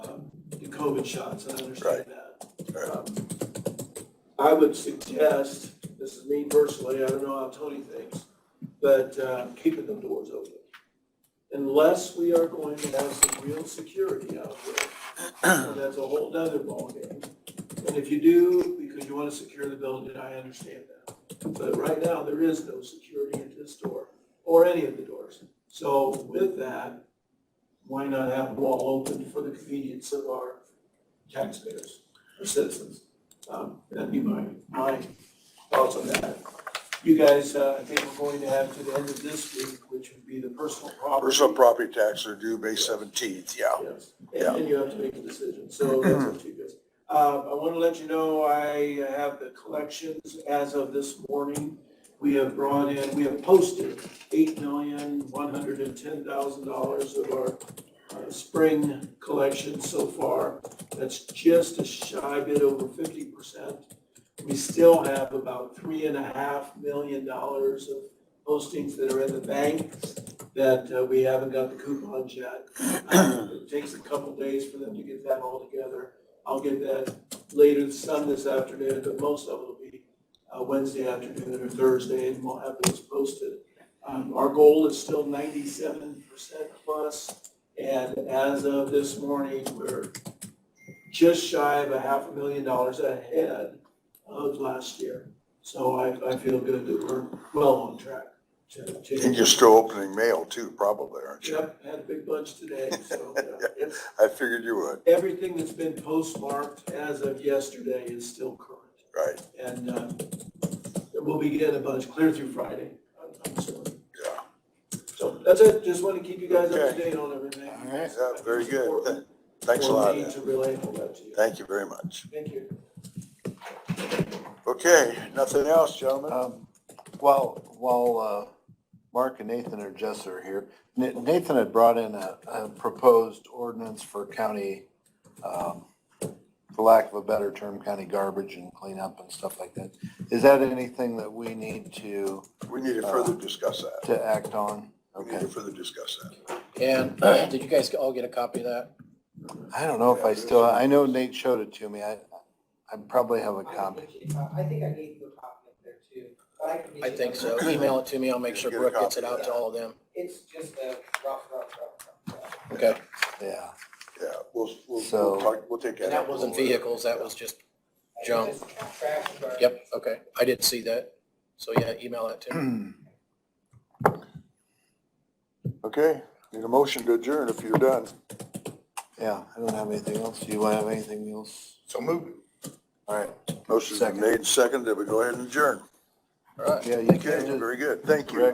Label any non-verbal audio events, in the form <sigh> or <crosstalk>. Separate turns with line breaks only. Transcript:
COVID shots, I understand
Right.
that. Um, I would suggest, this is me personally, I don't know how Tony thinks, but uh, keeping the doors open. Unless we are going to have some real security out there, and that's a whole nother ballgame. And if you do, because you want to secure the building, I understand that. But right now, there is no security at this door, or any of the doors. So with that, why not have them all open for the convenience of our taxpayers, our citizens? Um, That'd be my, my thoughts on that. You guys, uh, I think we're going to have to the end of this week, which would be the personal property.
Personal property tax are due May seventeenth, yeah.
Yes,
Yeah.
and and you have to make a decision, so that's up to you guys. Uh, I want to let you know, I have the collections as of this morning. We have brought in, we have posted eight million, one hundred and ten thousand dollars of our uh, spring collection so far. That's just a shy bit over fifty percent. We still have about three and a half million dollars of postings that are in the bank that uh, we haven't got the coupons yet. It takes a couple days for them to get that all together. I'll get that later this sun this afternoon, but most of it will be uh, Wednesday afternoon or Thursday, and we'll have those posted. Um, Our goal is still ninety-seven percent plus, and as of this morning, we're just shy of a half a million dollars ahead of last year. So I, I feel good that we're well on track to. to-
And you're still opening mail too, probably, aren't you?
Yep, had a big bunch today, so uh, it's,
I figured you would,
everything that's been postmarked as of yesterday is still current.
right,
And uh, we'll be getting a bunch clear through Friday, I'm- I'm assuming.
yeah.
So that's it, just want to keep you guys up to
Okay.
date on everything.
All right.
Yeah, very good.
Important
Thanks a
for
lot.
me
Ed.
To relay all that to you.
Thank you very much.
Thank you.
Okay, nothing else, gentlemen?
Um, While, while uh, Mark and Nathan or Jess are here, Na- Nathan had brought in a, a proposed ordinance for county, um, for lack of a better term, county garbage and cleanup and stuff like that. Is that anything that we need to,
We need to further discuss that.
to act on?
We need to
Uh, Okay.
further discuss that.
And <clears throat> did you guys all get a copy of that?
I don't know if I still, I know Nate showed it to me. I, I probably have a copy.
I think I gave you a copy up there too, but I can.
I think so. Email it to me. I'll make sure
Get a
Brooke gets it
copy.
out to all of them.
It's just a rough, rough, rough, rough.
Okay.
Yeah.
Yeah, we'll, we'll,
So-
we'll talk, we'll take that.
And that wasn't vehicles. That was just, Jump.
It's just Trash and garbage.
yep, okay. I did see that. So yeah, email that to me.
Okay, need a motion to adjourn if you're done.
Yeah, I don't have anything else. Do you have anything else?
So moved.
All right.
Motion's been
Second.
made and seconded, we go ahead and adjourn.
All right.
Yeah, you
Okay,
can just.
very good, thank you.
Rick,